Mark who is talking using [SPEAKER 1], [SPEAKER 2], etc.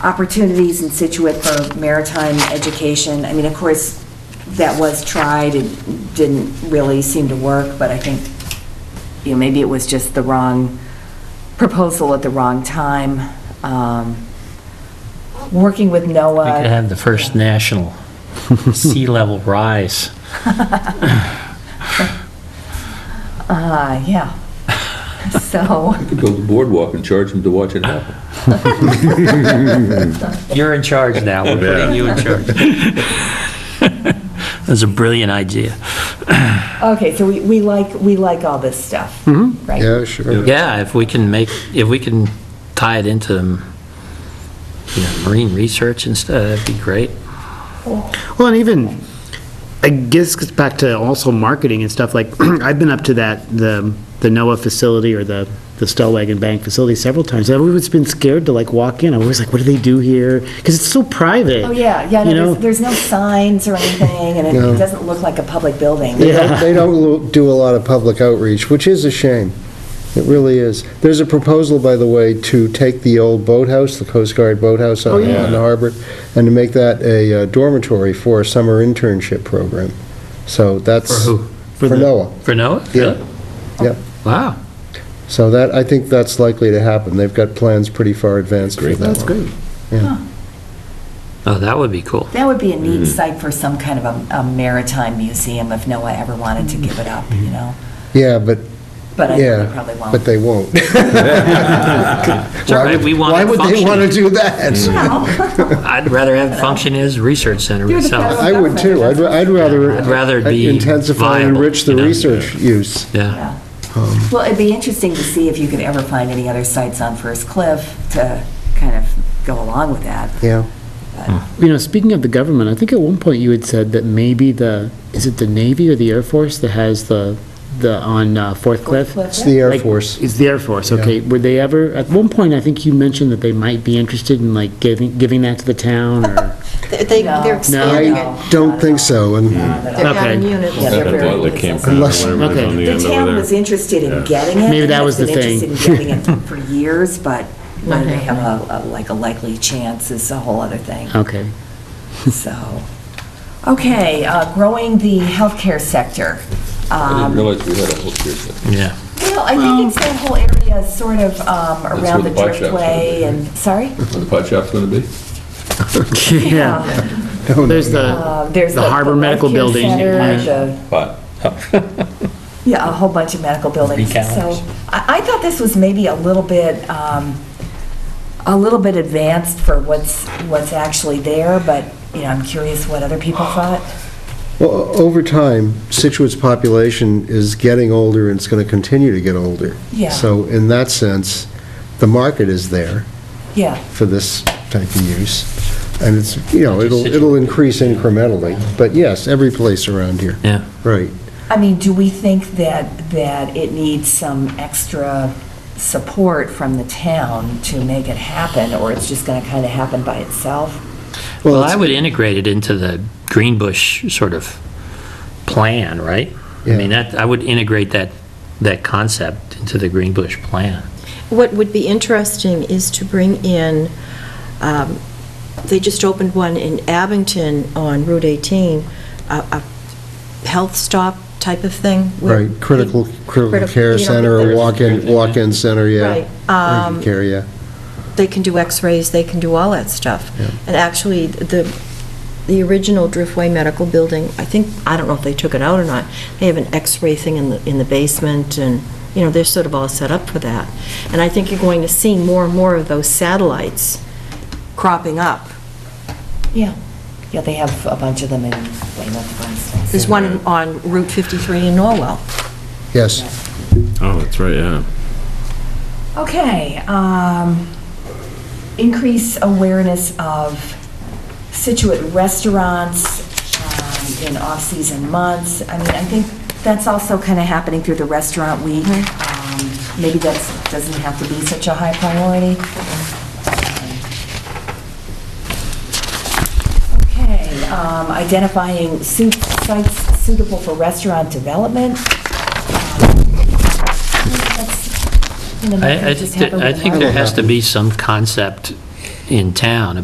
[SPEAKER 1] opportunities in Situate for maritime education. I mean, of course, that was tried, it didn't really seem to work, but I think, you know, maybe it was just the wrong proposal at the wrong time. Um, Working with
[SPEAKER 2] We could
[SPEAKER 1] NOAA,
[SPEAKER 2] have the first national sea level rise.
[SPEAKER 1] uh, yeah. So,
[SPEAKER 3] You could build a boardwalk and charge them to watch it happen.
[SPEAKER 2] You're in charge now, we're putting you in charge. That's a brilliant idea.
[SPEAKER 1] okay, so we we like, we like all this stuff, right?
[SPEAKER 4] Mm-hmm. Yeah, sure.
[SPEAKER 2] Yeah, if we can make, if we can tie it into, you know, marine research and stuff, that'd be great.
[SPEAKER 4] Well, and even, I guess, it's back to also marketing and stuff, like, I've been up to that, the, the NOAA facility or the, the Stellwagen Bank facility several times. I've always been scared to like walk in. I was like, what do they do here? Because it's so private.
[SPEAKER 1] Oh, yeah, yeah, no,
[SPEAKER 4] You know?
[SPEAKER 1] there's- there's no signs or anything, and it- it doesn't look like a public building.
[SPEAKER 5] They don't- They don't do a lot of public outreach, which is a shame. It really is. There's a proposal, by the way, to take the old boathouse, the Coast Guard boathouse on on the harbor, and to make that a uh, dormitory for a summer internship program. So that's.
[SPEAKER 2] For who?
[SPEAKER 5] For
[SPEAKER 4] the-
[SPEAKER 5] NOAA,
[SPEAKER 2] For Noah?
[SPEAKER 5] yeah, yeah.
[SPEAKER 2] Wow.
[SPEAKER 5] So that, I think that's likely to happen. They've got plans pretty far advanced for that.
[SPEAKER 4] That's great.
[SPEAKER 2] Oh, that would be cool.
[SPEAKER 1] That would be a neat site for some kind of a- a maritime museum if Noah ever wanted to give it up, you know?
[SPEAKER 5] Yeah, but,
[SPEAKER 1] But I know they
[SPEAKER 5] yeah,
[SPEAKER 1] probably
[SPEAKER 5] but
[SPEAKER 1] won't.
[SPEAKER 5] they won't.
[SPEAKER 2] It's all
[SPEAKER 5] Why
[SPEAKER 2] right,
[SPEAKER 5] would-
[SPEAKER 2] we want
[SPEAKER 5] Why
[SPEAKER 2] it
[SPEAKER 5] would they want to
[SPEAKER 2] functioning.
[SPEAKER 5] do that?
[SPEAKER 2] I'd rather have it function as a research center
[SPEAKER 1] You're the
[SPEAKER 2] myself.
[SPEAKER 1] federal-
[SPEAKER 5] I would too. I'd, I'd rather.
[SPEAKER 2] I'd rather it be
[SPEAKER 5] Intensify and
[SPEAKER 2] viable,
[SPEAKER 5] enrich the
[SPEAKER 2] you know?
[SPEAKER 5] research use.
[SPEAKER 2] Yeah.
[SPEAKER 1] Yeah. Well, it'd be interesting to see if you could ever find any other sites on First Cliff to kind of go along with that.
[SPEAKER 5] Yeah.
[SPEAKER 4] You know, speaking of the government, I think at one point you had said that maybe the, is it the Navy or the Air Force that has the, the, on uh, Fourth Cliff?
[SPEAKER 5] It's the Air
[SPEAKER 4] Like,
[SPEAKER 5] Force.
[SPEAKER 4] It's the Air Force, okay. Were they ever, at one point, I think you mentioned that they might be interested in like giving, giving that to the town or,
[SPEAKER 6] They- They,
[SPEAKER 1] No.
[SPEAKER 6] they're expanding
[SPEAKER 1] No.
[SPEAKER 6] it.
[SPEAKER 5] Don't think so. And
[SPEAKER 6] They're not in
[SPEAKER 4] Okay.
[SPEAKER 6] units.
[SPEAKER 1] Yeah, they're very-
[SPEAKER 3] Like campground.
[SPEAKER 5] unless,
[SPEAKER 4] okay.
[SPEAKER 1] The town was interested in getting it.
[SPEAKER 4] Maybe that
[SPEAKER 1] and
[SPEAKER 4] was the
[SPEAKER 1] It's
[SPEAKER 4] thing.
[SPEAKER 1] been interested in getting it for years, but whether they
[SPEAKER 6] Okay.
[SPEAKER 1] have a, a- like a likely chance is a whole other thing.
[SPEAKER 4] okay.
[SPEAKER 1] So, okay, uh, growing the healthcare sector.
[SPEAKER 3] I
[SPEAKER 1] Um,
[SPEAKER 3] didn't realize we had a whole series of
[SPEAKER 2] Yeah.
[SPEAKER 1] Well, I think it's that whole area sort of um, around the
[SPEAKER 3] where the bike shops are,
[SPEAKER 1] Driftway and, sorry?
[SPEAKER 3] Where the pot shop's going to be?
[SPEAKER 4] Yeah. There's the,
[SPEAKER 1] Um, Uh, There's
[SPEAKER 4] The Harbor
[SPEAKER 1] Life
[SPEAKER 4] Medical
[SPEAKER 1] Care
[SPEAKER 4] Building.
[SPEAKER 1] Center,
[SPEAKER 4] Yeah.
[SPEAKER 1] the-
[SPEAKER 3] Pot.
[SPEAKER 1] Yeah, a whole bunch of medical buildings.
[SPEAKER 2] Three calendars.
[SPEAKER 1] So I, I thought this was maybe a little bit, um, a little bit advanced for what's, what's actually there, but, you know, I'm curious what other people thought.
[SPEAKER 5] well, o- over time, Situate's population is getting older and it's going to continue to get older.
[SPEAKER 1] Yeah.
[SPEAKER 5] So in that sense, the market is there
[SPEAKER 1] Yeah,
[SPEAKER 5] for this type of use. And it's, you know,
[SPEAKER 2] Just
[SPEAKER 5] it'll,
[SPEAKER 2] Situate.
[SPEAKER 5] it'll increase incrementally. But yes, every place around here.
[SPEAKER 2] Yeah.
[SPEAKER 5] Right.
[SPEAKER 1] I mean, do we think that, that it needs some extra support from the town to make it happen, or it's just gonna kinda happen by itself?
[SPEAKER 2] Well,
[SPEAKER 5] it's-
[SPEAKER 2] I would integrate it into the Greenbush sort of plan, right? I mean, that, I would integrate that, that concept into the Greenbush plan.
[SPEAKER 6] What would be interesting is to bring in, um, they just opened one in Abington on Route 18, a a health stop type of thing. where
[SPEAKER 5] Right, critical,
[SPEAKER 6] they-
[SPEAKER 5] critical care
[SPEAKER 6] you know,
[SPEAKER 5] center, Um, or
[SPEAKER 6] there's-
[SPEAKER 5] walk-in, walk-in center, yeah.
[SPEAKER 6] Right. Um,
[SPEAKER 5] Urgent care, yeah.
[SPEAKER 6] They can do x-rays, they can do all that stuff.
[SPEAKER 5] Yeah.
[SPEAKER 6] And actually, the, the original Driftway Medical Building, I think, I don't know if they took it out or not, they have an x-ray thing in the, in the basement, and, you know, they're sort of all set up for that. And I think you're going to see more and more of those satellites cropping up.
[SPEAKER 1] Yeah. Yeah, they have a bunch of them in Weymouth, for instance.
[SPEAKER 6] There's one on Route 53 in Norwell.
[SPEAKER 5] Yes,
[SPEAKER 7] Oh, that's right, yeah.
[SPEAKER 1] Okay, um, increase awareness of Situate restaurants, um, in off-season months. I mean, I think that's also kind of happening through the restaurant week. Um, Maybe that's, doesn't have to be such a high priority. Okay, um, identifying su- sites suitable for restaurant development. Um, that's, you know,
[SPEAKER 2] I, I
[SPEAKER 1] just
[SPEAKER 2] think,
[SPEAKER 1] happened
[SPEAKER 2] that- I
[SPEAKER 1] with
[SPEAKER 2] think
[SPEAKER 1] Marla.
[SPEAKER 2] there has to be some concept in town